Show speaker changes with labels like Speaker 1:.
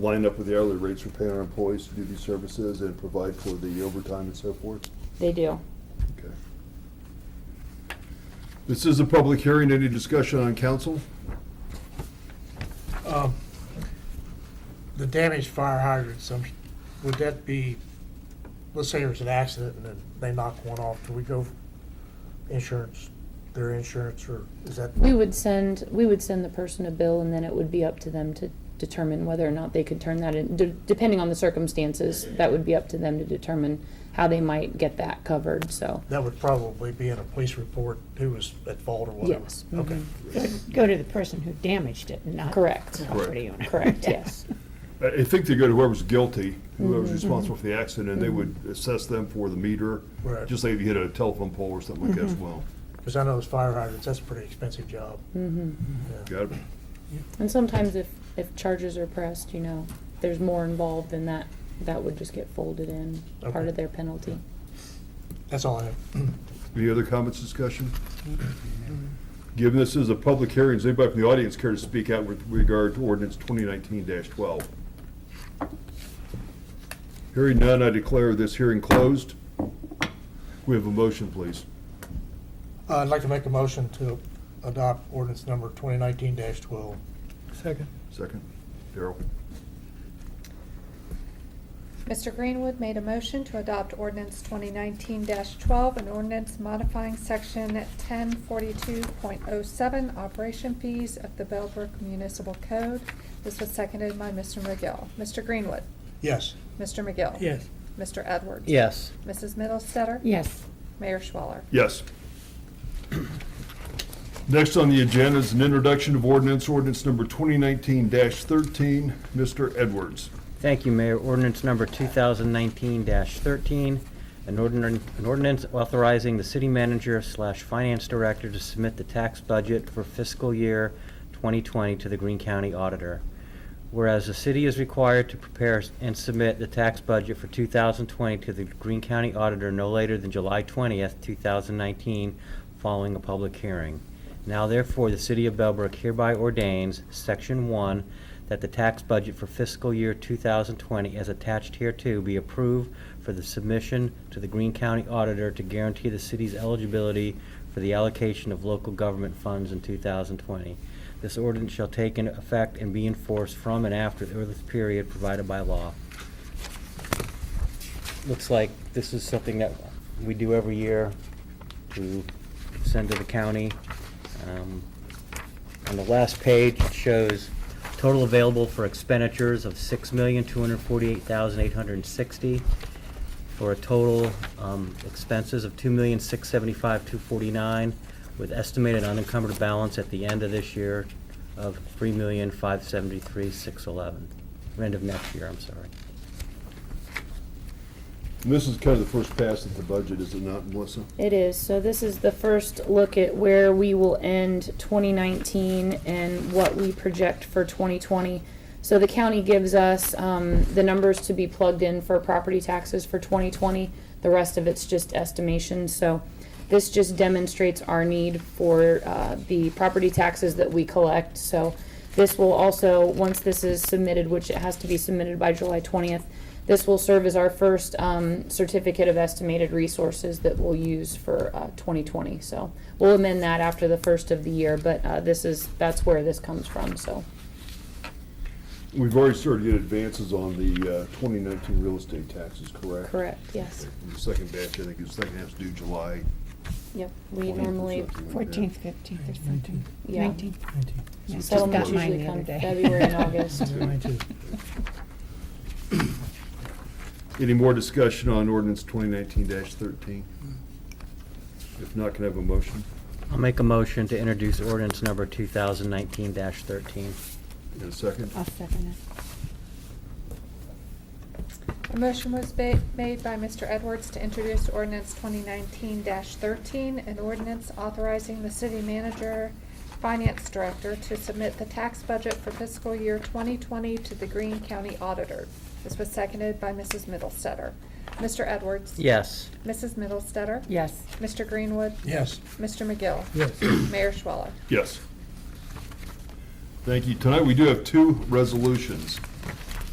Speaker 1: line up with the hourly rates we're paying our employees to do these services and provide for the overtime and so forth?
Speaker 2: They do.
Speaker 1: Okay. This is a public hearing. Any discussion on council?
Speaker 3: Um, The damaged fire hydrants, um, would that be, let's say there's an accident and then they knock one off, do we go insurance, their insurance, or is that?
Speaker 2: We would send, we would send the person a bill and then it would be up to them to determine whether or not they could turn that in. De- Depending on the circumstances, that would be up to them to determine how they might get that covered, so.
Speaker 3: That would probably be in a police report, who was at fault or whatever.
Speaker 2: Yes.
Speaker 3: Okay.
Speaker 4: Go to the person who damaged it, not.
Speaker 2: Correct.
Speaker 4: the
Speaker 2: Correct.
Speaker 4: Property owner.
Speaker 2: Correct, yes.
Speaker 1: I I think they go to whoever's guilty, whoever's responsible for the accident, and they would assess them for the meter.
Speaker 3: Right.
Speaker 1: Just like if you hit a telephone pole or something like that as well.
Speaker 3: Because I know those fire hydrants, that's a pretty expensive job. Yeah.
Speaker 1: Got it?
Speaker 2: And sometimes if, if charges are pressed, you know, there's more involved than that, that would just get folded in, part
Speaker 3: Okay.
Speaker 2: of their penalty.
Speaker 3: That's all I have.
Speaker 1: Any other comments, discussion? Given this is a public hearing, does anybody from the audience care to speak out with regard to ordinance twenty nineteen twelve? Hearing none, I declare this hearing closed. We have a motion, please.
Speaker 3: Uh, I'd like to make a motion to adopt ordinance number 2019-12.
Speaker 5: Second.
Speaker 1: Second, Darrell.
Speaker 6: Mr. Greenwood made a motion to adopt ordinance twenty nineteen twelve, an ordinance modifying section ten forty-two point oh seven, operation fees of the Bellbrook Municipal Code. This was seconded by Mr. McGill. Mr. Greenwood.
Speaker 3: Yes.
Speaker 6: Mr. McGill.
Speaker 5: Yes.
Speaker 6: Mr. Edwards.
Speaker 5: Yes.
Speaker 6: Mrs. Middlestetter.
Speaker 4: Yes,
Speaker 6: Mayor Schwaller.
Speaker 1: Yes. Next on the agenda is an introduction of ordinance, ordinance number twenty nineteen thirteen, Mr. Edwards.
Speaker 7: Thank you, Mayor. Ordinance number 2019-13, an ordinance an ordinance authorizing the city manager slash finance director to submit the tax budget for fiscal year 2020 to the Greene County Auditor. Whereas the city is required to prepare and submit the tax budget for 2020 to the Greene County Auditor no later than July 20th, 2019, following a public hearing. Now therefore, the City of Bellbrook hereby ordains, Section 1, that the tax budget for fiscal year 2020 as attached hereto be approved for the submission to the Greene County Auditor to guarantee the city's eligibility for the allocation of local government funds in 2020. This ordinance shall take in effect and be enforced from and after the earliest period provided by law. Looks like this is something that we do every year to send to the county. Um, On the last page, it shows total available for expenditures of six million, two hundred forty-eight thousand, eight hundred and sixty, for a total um, expenses of two million, six seventy-five, two forty-nine, with estimated unencumbered balance at the end of this year of three million, five seventy-three, six eleven, end of next year, I'm sorry.
Speaker 1: And this is kind of the first pass at the budget, is it not, Melissa?
Speaker 2: It is. So this is the first look at where we will end 2019 and what we project for 2020. So the county gives us um, the numbers to be plugged in for property taxes for 2020. The rest of it's just estimation. So this just demonstrates our need for uh, the property taxes that we collect. So this will also, once this is submitted, which it has to be submitted by July 20th, this will serve as our first um, certificate of estimated resources that we'll use for uh, 2020. So we'll amend that after the first of the year, but uh, this is, that's where this comes from, so.
Speaker 1: We've already started to get advances on the uh, twenty nineteen real estate taxes, correct?
Speaker 2: Correct, yes.
Speaker 1: The second batch, I think, is second half's due July.
Speaker 2: Yep, we
Speaker 1: 20th or
Speaker 2: normally,
Speaker 1: something like that.
Speaker 4: fourteenth, fifteenth, or something.
Speaker 2: Yeah.
Speaker 4: Nineteenth. Yeah, just got
Speaker 2: settlements
Speaker 4: mine
Speaker 2: usually
Speaker 4: the other
Speaker 2: come
Speaker 4: day.
Speaker 2: February and August.
Speaker 1: Any more discussion on ordinance twenty nineteen thirteen? If not, can I have a motion
Speaker 7: I'll make a motion to introduce ordinance number 2019-13.
Speaker 1: in a second?
Speaker 4: I'll second
Speaker 6: A motion was ba- made by Mr. Edwards to introduce ordinance twenty nineteen thirteen, an ordinance authorizing the city manager, finance director to submit the tax budget for fiscal year twenty twenty to the Greene County Auditor. This was seconded by Mrs. Middlestetter. Mr. Edwards?
Speaker 7: Yes.
Speaker 6: Mrs. Middlestetter?
Speaker 4: it. Yes.
Speaker 6: Mr. Greenwood?
Speaker 3: Yes.
Speaker 6: Mr. McGill? Mayor Schwaller?
Speaker 1: Yes. Thank you. Tonight, we do have two resolutions.